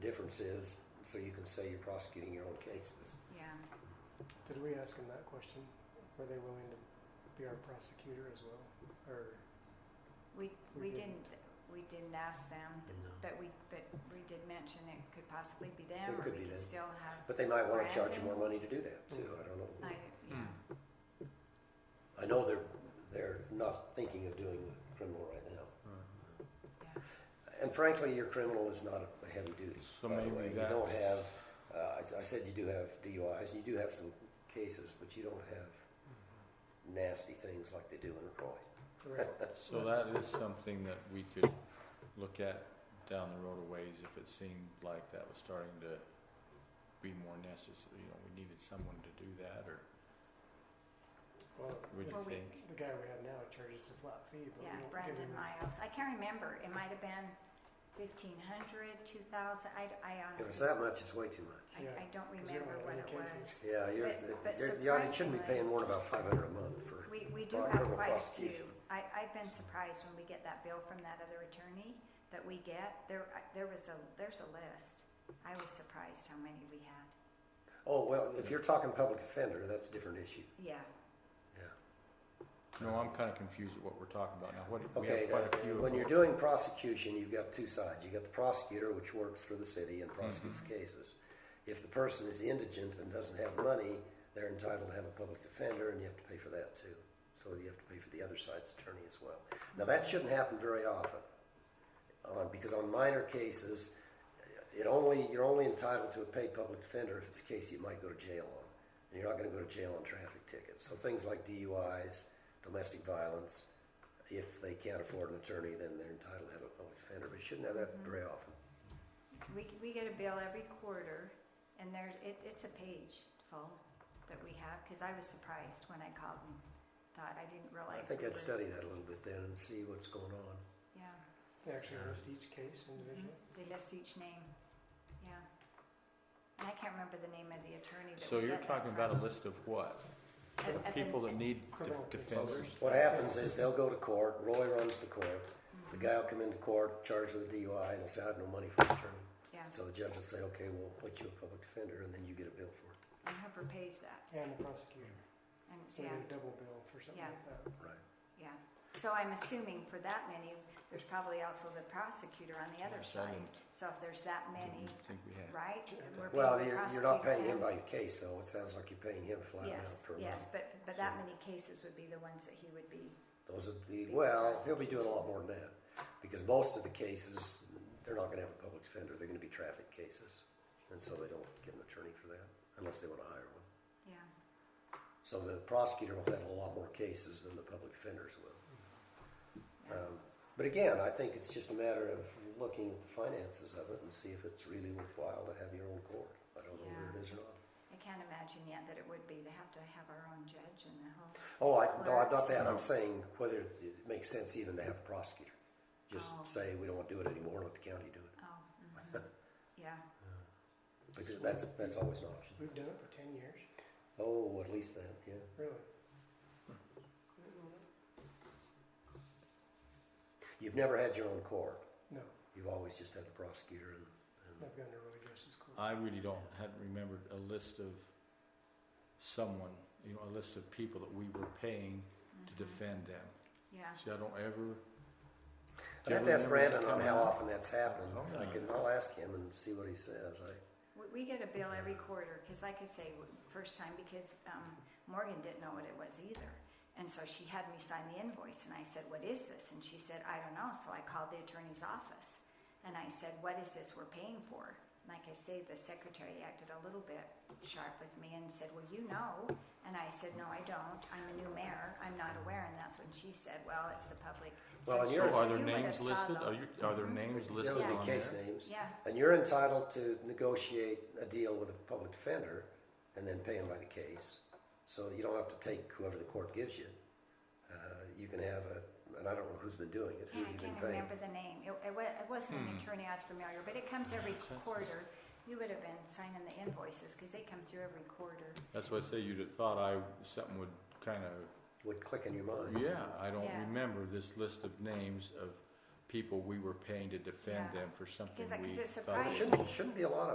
difference is, so you can say you're prosecuting your own cases. Yeah. Did we ask them that question? Were they willing to be our prosecutor as well? Or We, we We didn't. didn't, we didn't ask them, No. th- Mm-hmm. but we, but we did mention it could possibly be them, It or could we be could them. still have, But they might wanna charge you Brandon? more money to do that too, I don't know. I, Hmm. yeah, I know they're, they're not thinking of doing the criminal right now. yeah. And frankly, your criminal is not a- a heavy duty, So by the way. maybe You that's. don't have, uh, I, I said you do have DUIs, and you do have some cases, but you don't have nasty things like they do in Croy. So that is something that we could look at down the road a ways if it seemed like that was starting to be more necessary, you know, we needed someone to do that, or well, what do Well, you we- think? the guy we have now charges a flat fee, but Yeah, we don't give Brandon him. Miles. I can't remember. It might have been 1500, 2000. I, I If it's honestly, that much, it's way too much. I, Yeah, I don't 'cause we don't remember have what any it cases. was. Yeah, you're, But- but you're, you're- you shouldn't be surprisingly- paying more than about five hundred a month for, We, we do Well, have criminal quite a few. prosecution. I, I've been surprised when we get that bill from that other attorney that we get. There, I- there was a, there's a list. I was surprised how many we had. oh, well, if you're talking public offender, that's a different issue, Yeah. yeah. No, I'm kinda confused at what we're talking about now, what, we Okay, have quite a few of when you're them. doing prosecution, you've got two sides. You've got the prosecutor, which works for the city Mm-hmm. and prosecutes cases. If the person is indigent and doesn't have money, they're entitled to have a public defender, and you have to pay for that too. So you have to pay for the other side's attorney as well. Now, that shouldn't happen very often, uh, because on minor cases, it only, you're only entitled to a paid public defender if it's a case you might go to jail on. And you're not gonna go to jail on traffic tickets. So things like DUIs, domestic violence, if they can't afford an attorney, then they're entitled to have a public defender, but you shouldn't have that Mm-hmm. very often. We, we get a bill every quarter and there's, it, it's a page full that we have, cause I was surprised when I called and thought, I didn't I realize. think we I'd were- study that a little bit then and see what's going on. Yeah. They actually list each case individually. They list each name, yeah. And I can't remember the name of the attorney that So we you're got that talking about a from. list of what? Of- of the- People that need def- Criminal defenders? cases. What happens is they'll go to court, Roy runs the court, the guy will come into court, charged with a DUI, and he'll say, I have no money for an attorney. Yeah, So the judge will say, okay, we'll put you a public defender, and then you get a bill for it. and Hooper pays that, And the prosecutor. and, So yeah, they get a double bill for something Yeah. like that. Right. yeah. So I'm assuming for that many, there's probably also the prosecutor on the other Yes, side. I didn't- So if there's that many, Didn't think we had. right? we're paying Well, the you're, you're not prosecutor paying him and- by the case, though. It sounds like you're paying him a flat amount Yes, per month. yes, but, but that many cases would be the ones that he would be, Those would be, Big well, he'll be doing a lot more than that, because most of the cases, they're not gonna have a public defender, they're gonna be traffic cases. And so they don't get an attorney for that, unless they wanna hire one. yeah. So the prosecutor will handle a lot more cases than the public defenders will. Yeah. Um, But again, I think it's just a matter of looking at the finances of it and see if it's really worthwhile to have your own court. I don't know whether it is or not. I can't imagine yet that it would be to have to have our own judge and the whole, Oh, I, no, I'm not that, I'm Clerks. saying whether it makes sense even to have a prosecutor. Just Oh. say, we don't wanna do it anymore, let the county do it. oh, mhm. yeah. Because that's, that's always an option. We've done it for ten years, Oh, at least that, yeah. really. You've never had your own court. No, You've always just had the prosecutor and, and I've gone to really justice court. I really don't, hadn't remembered a list of someone, you know, a list of people that we were paying to mhm. defend them. Yeah, See, I don't ever. I'd have to ask Brandon on how often that's happened. Oh, I yeah. can, I'll ask him and see what he says. I, we, we get a bill every quarter, cause like I say, w- first time, because, um, Morgan didn't know what it was either. And so she had me sign the invoice, and I said, what is this? And she said, I don't know, so I called the attorney's office. And I said, what is this we're paying for? Like I say, the secretary acted a little bit sharp with me and said, well, you know. And I said, no, I don't, I'm a new mayor, I'm not aware, and that's when she said, well, it's the public. Well, and So yours- so are there you would have names saw listed? Oh, Are those. you, are there names there listed would on be case there? names. Yeah, And you're entitled to negotiate a deal with a public defender and then pay him by the case. So you don't have to take whoever the court gives you. Uh, you can have a, and I don't know who's been doing it, who Yeah, I you've been can't paying. remember the name. It, it, wa- it wasn't an Hmm. attorney I was familiar, but it comes every quarter. You would have been signing the invoices because they come through every quarter. That's why I say you'd have thought I, something would kind of, Would click in your mind. yeah, I don't Yeah. remember this list of names of people we were paying to defend Yeah. them for something Because, like, we is it thought Well, surprising? It was shouldn't, shouldn't be a lot of